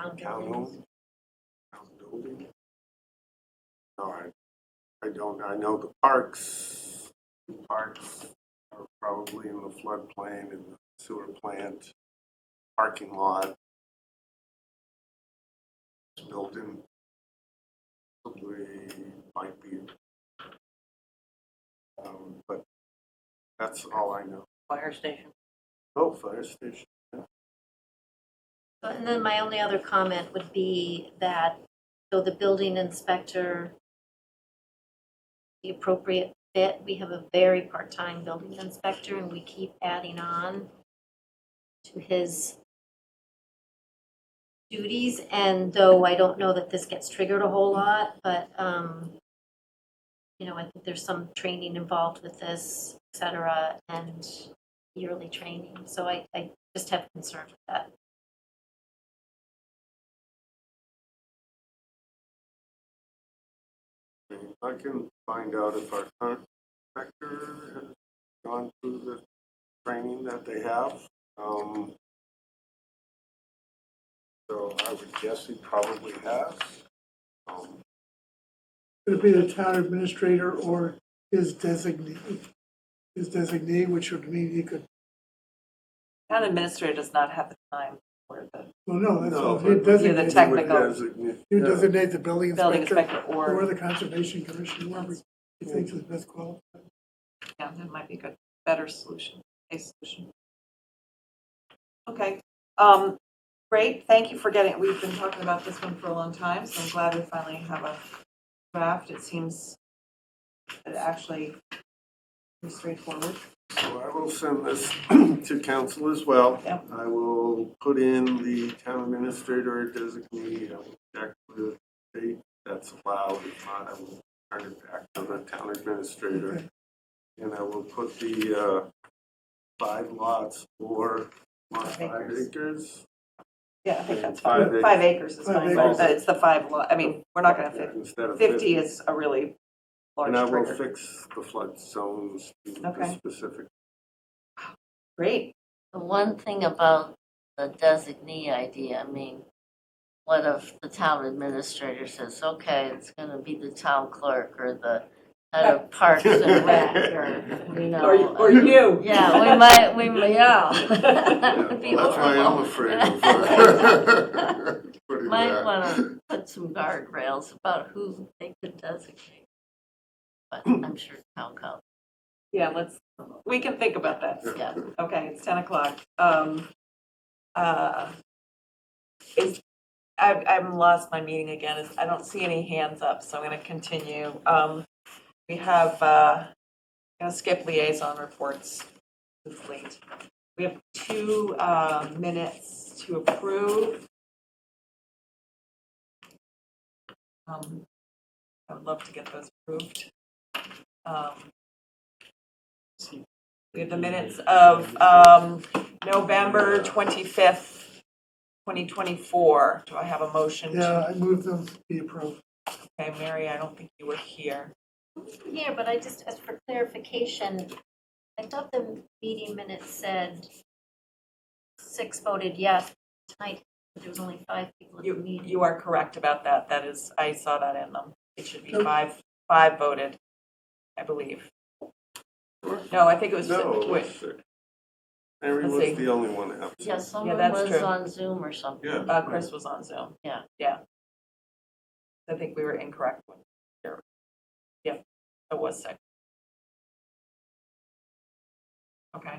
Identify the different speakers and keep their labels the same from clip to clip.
Speaker 1: Townhome? Town building? No, I, I don't, I know the parks, parks are probably in the floodplain and the sewer plant, parking lot. This Building. Probably might be. Um, but that's all I know.
Speaker 2: fire station.
Speaker 1: Oh, fire station.
Speaker 3: And then my only other comment would be that, though the building inspector, the appropriate fit, we have a very part-time building inspector and we keep adding on to his duties. And though I don't know that this gets triggered a whole lot, but, um, you know, I think there's some training involved with this, et cetera, and yearly training. So I, I just have concern with that.
Speaker 1: I can find out if our current inspector has gone through the training that they have. Um, So I would guess he probably has. Um,
Speaker 4: It would be the town administrator or his designee, his designee, which would mean he could,
Speaker 2: Town administrator does not have the time for the
Speaker 4: well, no, that's,
Speaker 1: No,
Speaker 4: all. he
Speaker 1: but-
Speaker 2: You're the
Speaker 4: designates,
Speaker 2: tech- Technical.
Speaker 1: He would designate-
Speaker 4: he would
Speaker 1: yeah.
Speaker 4: designate the building
Speaker 2: building
Speaker 4: inspector
Speaker 2: inspector
Speaker 4: or
Speaker 2: or,
Speaker 4: the conservation commission, whoever he thinks is best qualified.
Speaker 2: yeah, that might be a good, better solution, a solution. Okay, um, great, thank you for getting, we've been talking about this one for a long time, so I'm glad we finally have a draft. It seems that it actually is straightforward.
Speaker 1: So I will send this to council as well.
Speaker 2: Yeah.
Speaker 1: I will put in the town administrator designee, I will check with the state that's allowed. If not, I will turn it back to the town administrator.
Speaker 4: Okay.
Speaker 1: And I will put the uh, five lots or lot five
Speaker 2: Acres.
Speaker 1: acres.
Speaker 2: Yeah, I think that's
Speaker 1: Five
Speaker 2: fine.
Speaker 1: acres.
Speaker 2: Five acres is
Speaker 4: Five
Speaker 2: fine, but
Speaker 1: acres.
Speaker 2: uh, it's the five lot, I mean, we're not gonna fit,
Speaker 1: Instead of
Speaker 2: fifty is a really large
Speaker 1: And I will
Speaker 2: trigger.
Speaker 1: fix the flood zones to the
Speaker 2: Okay.
Speaker 1: specific.
Speaker 2: Great,
Speaker 5: The one thing about the designee idea, I mean, what if the town administrator says, okay, it's gonna be the town clerk or the head of parks and rec or, you know. uh,
Speaker 2: or, you- or you.
Speaker 5: Yeah, we might, we, might- yeah.
Speaker 1: Yeah,
Speaker 5: It'd be
Speaker 1: That's why I'm
Speaker 5: horrible.
Speaker 1: afraid of. uh, putting
Speaker 5: Might
Speaker 1: that.
Speaker 5: wanna put some guardrails about who they could designate. But I'm sure town council,
Speaker 2: Yeah, let's, we can think about that.
Speaker 5: yeah.
Speaker 2: Okay, it's 10 o'clock. Um, uh, Is, I- I'm lost my meeting again. Is- I don't see any hands up, so I'm going to continue. Um, We have, uh, I'm going to skip liaison reports. It's late. We have two uh, minutes to approve. Um, I would love to get those approved. Um, we have the minutes of um, November 25th, 2024. Do I have a motion? to-
Speaker 4: Yeah, I moved them to be approved.
Speaker 2: Okay, Mary, I don't think you were here.
Speaker 3: here, but I just, as for clarification, I thought the meeting minutes said six voted yes tonight, but there was only five people at the
Speaker 2: You,
Speaker 3: meeting.
Speaker 2: you are correct about that. That is, I saw that in them. It should be
Speaker 4: Nope.
Speaker 2: five, five voted, I believe.
Speaker 1: Sure.
Speaker 2: No, I think it was,
Speaker 1: No, it
Speaker 2: wait,
Speaker 1: was six. Mary
Speaker 2: Let's see.
Speaker 1: was the only one absent.
Speaker 5: Yeah, someone
Speaker 2: that's
Speaker 5: was
Speaker 2: true.
Speaker 5: on Zoom or something.
Speaker 1: Yeah.
Speaker 2: uh, Chris was on Zoom.
Speaker 5: Yeah.
Speaker 2: Yeah. I think we were incorrect when, here. yeah, it was six. Okay.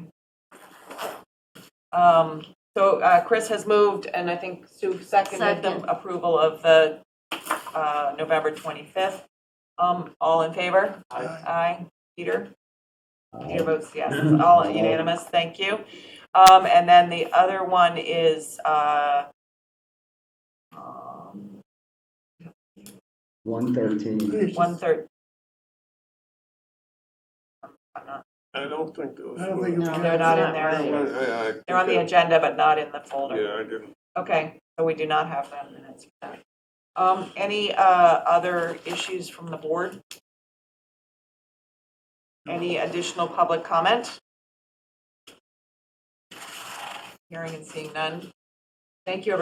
Speaker 2: Um, so, uh, Chris has moved, and I think Sue seconded
Speaker 5: Second.
Speaker 2: the approval of the, uh, November twenty-fifth. Um, all in favor?
Speaker 4: Aye.
Speaker 2: Aye. Peter? Peter votes yes. It's all unanimous. Thank you. Um, and then the other one is, uh, um,
Speaker 6: One thirteen.
Speaker 2: one third. I'm not,
Speaker 1: I don't think there was.
Speaker 4: I don't think
Speaker 1: one.
Speaker 4: it's.
Speaker 5: No,
Speaker 2: they're not in
Speaker 1: I-
Speaker 2: there.
Speaker 1: I- I-
Speaker 2: They're on the agenda, but not in the folder.
Speaker 1: Yeah, I didn't.
Speaker 2: Okay, so we do not have that minutes. for that. Um, any, uh, other issues from the board? Any additional public comment? Hearing and seeing none. Thank you, everyone.